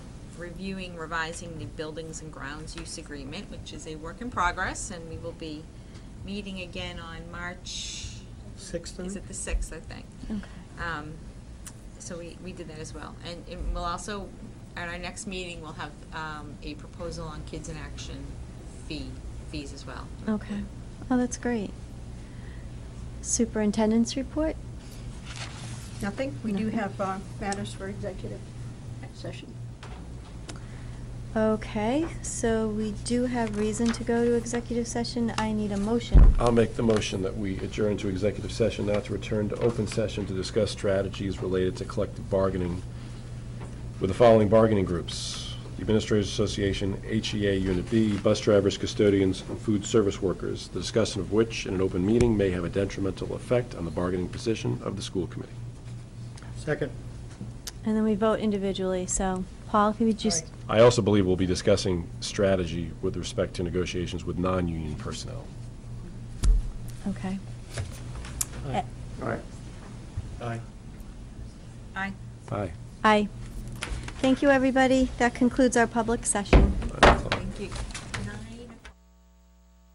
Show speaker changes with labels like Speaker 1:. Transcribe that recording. Speaker 1: reviewing, revising the buildings and grounds use agreement, which is a work in progress, and we will be meeting again on March,
Speaker 2: Sixth,
Speaker 1: is
Speaker 2: then?
Speaker 1: it the sixth, I think? Um, So we, we did that as well. And it- we'll also, at our next meeting, we'll have um, a proposal on kids in action fee, fees as well.
Speaker 3: Okay. Oh, that's great. Superintendent's report?
Speaker 4: Nothing? We do
Speaker 3: Nothing.
Speaker 4: have uh, matters for executive session.
Speaker 3: Okay, so we do have reason to go to executive session. I need a motion.
Speaker 2: I'll make the motion that we adjourn to executive session, not to return to open session to discuss strategies related to collective bargaining with the following bargaining groups: the Administrators Association, HEA Unit B, bus drivers, custodians, and food service workers, the discussion of which in an open meeting may have a detrimental effect on the bargaining position of the school committee.
Speaker 5: Second.
Speaker 3: And then we vote individually, so Paul, if you would just,
Speaker 2: I also believe we'll be discussing strategy with respect to negotiations with non-union personnel.
Speaker 3: okay.
Speaker 5: Aye.
Speaker 2: Aye.
Speaker 5: Aye.
Speaker 1: Aye.
Speaker 2: Aye.
Speaker 3: Aye. Thank you, everybody. That concludes our public session.
Speaker 1: Thank you.